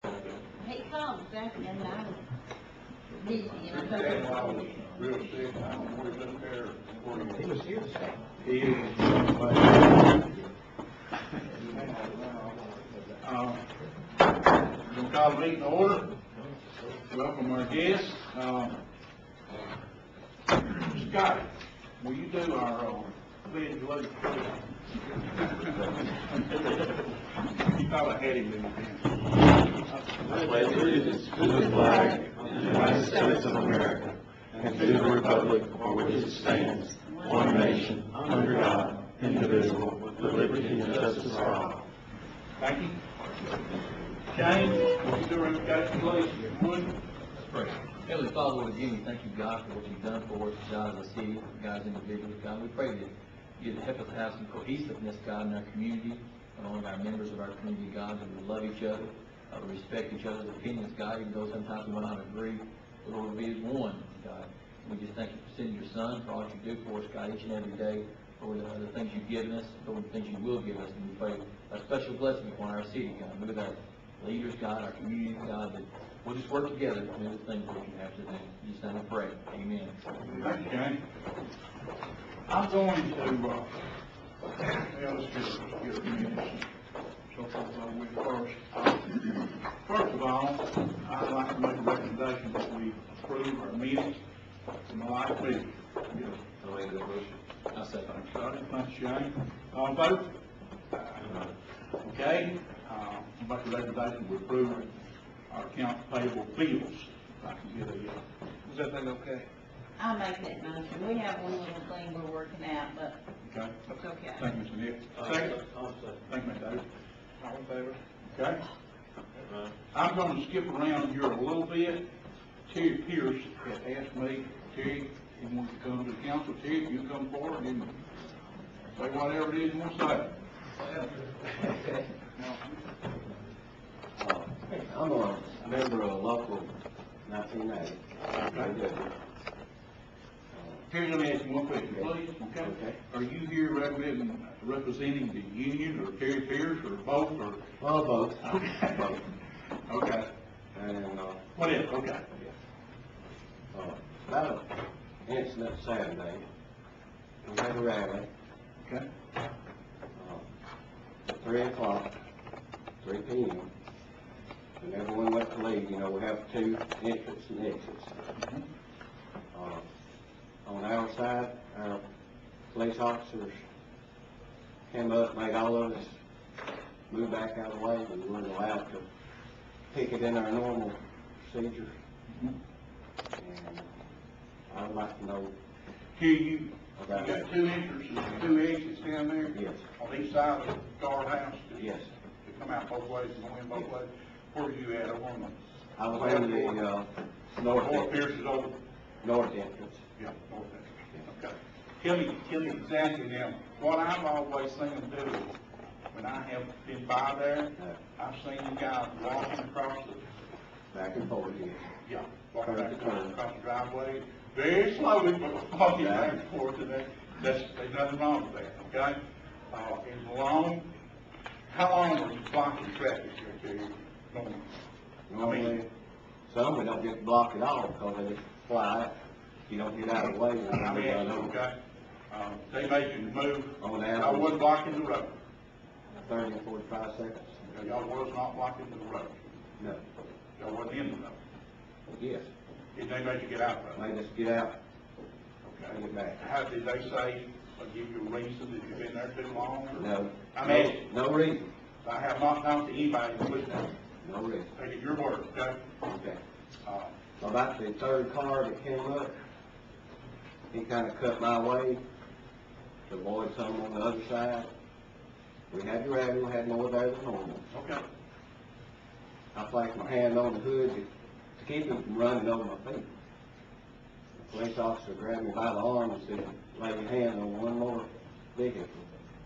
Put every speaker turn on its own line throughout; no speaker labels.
ต้องแจ้งอย่างนั้นดีอย่างนั้นก็
That's why I
ได้
was real sick, I was always up there recording.
He was here this time.
He is. Uh, We'll call the meeting to order. Welcome our guests. Um, Scotty, will you do our, uh, pledge of allegiance? You thought I had him in
I pledge allegiance to the flag of the United States of America and to the republic for which it stands, one nation, under God, indivisible, with liberty and justice for all.
Thank you. James, will you do our invocation, please? Would?
Let's pray. Heavenly Father, Lord, again, we thank you, God, for what you've done for us, God, as a city, God, as individuals, God. We pray that you'd help us have some cohesiveness, God, in our community, among our members of our community, God, that we love each other, uh, we respect each other's opinions, God, even though sometimes we might not agree, but Lord, we be as one, God. We just thank you for sending your son, for all that you do for us, God, each and every day, for the, the things you've given us, for the things you will give us, and we pray a special blessing upon our city, God. Move our leaders, God, our community, God, that we'll just work together to do the things that you have to do. In Jesus' name we pray. Amen.
Thank you, Jane. I'm going to, uh, yeah, let's get, get a minute. So, uh, we first, first of all, I'd like to make a recommendation that we approve our minutes from the last meeting. Get a
I'll make that motion. I'll second.
Starting with Shane, all in favor? Okay, uh, make a recommendation to approve our accounts payable bills. If I can get a, uh, is that thing okay?
I'll make that motion. We have one little thing we're working out, but
Okay?
it's okay.
Thank you, Mr. Nick. Second? Thank you, Mr. Davis. All in favor? Okay. I'm gonna skip around here a little bit. Terry Pierce had asked me, Terry, you want to come to the council, Terry, you come forward and say whatever it is you want to say.
Uh, I'm a member of local nineteen eighty.
Terry, let me ask you one question, please, okay?
Okay.
Are you here representing, representing the union, or Terry Pierce, or both, or?
Well, both.
Okay.
Both.
Okay,
And, uh,
whatever, okay.
uh, about an incident Saturday, we had a rally,
Okay,
uh, three o'clock, three P M. And everyone went to leave, you know, we have two entrances and exits.
Mhm.
Uh, On our side, our police officers came up, made all of us move back out of the way, we weren't allowed to pick it in our normal procedure.
Mhm.
And I would like to know,
Here you, you got
About that.
two entrances, and two exits down there?
Yes.
On each side of the guard house? to-
yes,
To come out both ways, and go in both ways? Where are you at, over on the?
I was on the, uh, north
North
entrance,
Pierce is over?
north entrance.
Yeah, north entrance, okay. Tell me, tell me exactly now, what I've always seen them do, when I have been by there,
Yeah.
I've seen you guys walking across the,
back and forth, yes.
yeah, walking
Curb to
across
curb.
across the driveway, very slowly, but walking
Yeah.
back and forth to that, that's, there's nothing wrong with that, okay? Uh, it's long, how long was you blocking traffic here to you?
Normally, some we don't get blocked at all because they just fly, out. you don't get out of the way. you
I
don't
mean,
get out
it's
of the way.
okay, um, they made you move,
On
I
that,
wasn't blocking the road,
thirty or forty-five seconds,
y'all was not blocking the road,
no,
y'all wasn't in the road,
yes,
did they make you get out of the road?
made us get out,
Okay.
Get back.
How did they say, or give you a reason that you've been there too long? or-
no.
I mean,
No reason,
I have not talked to anybody, including them.
no reason,
Take it your word, okay?
okay.
Uh,
About the third car that came up, he kinda cut my way to avoid some on the other side. We had to rally, we had more there than normal.
okay,
I placed my hand on the hood to to keep him from running over my feet. The police officer grabbed me by the arm and said, lay your hand on one more vehicle.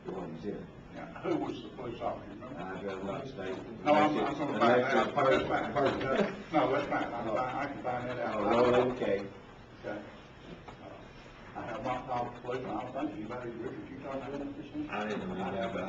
It wasn't zero.
now, who was the police officer, remember?
I drove not state.
No, I'm, I'm gonna find that out, that's
Unless it's a person-
fine,
person.
no, that's fine, I'm fine, I can find that out.
Oh, Roland K.
Okay. Uh, I have not talked to police, and I don't think anybody, Richard, you talked to them this week?
I didn't know
I
that.
have,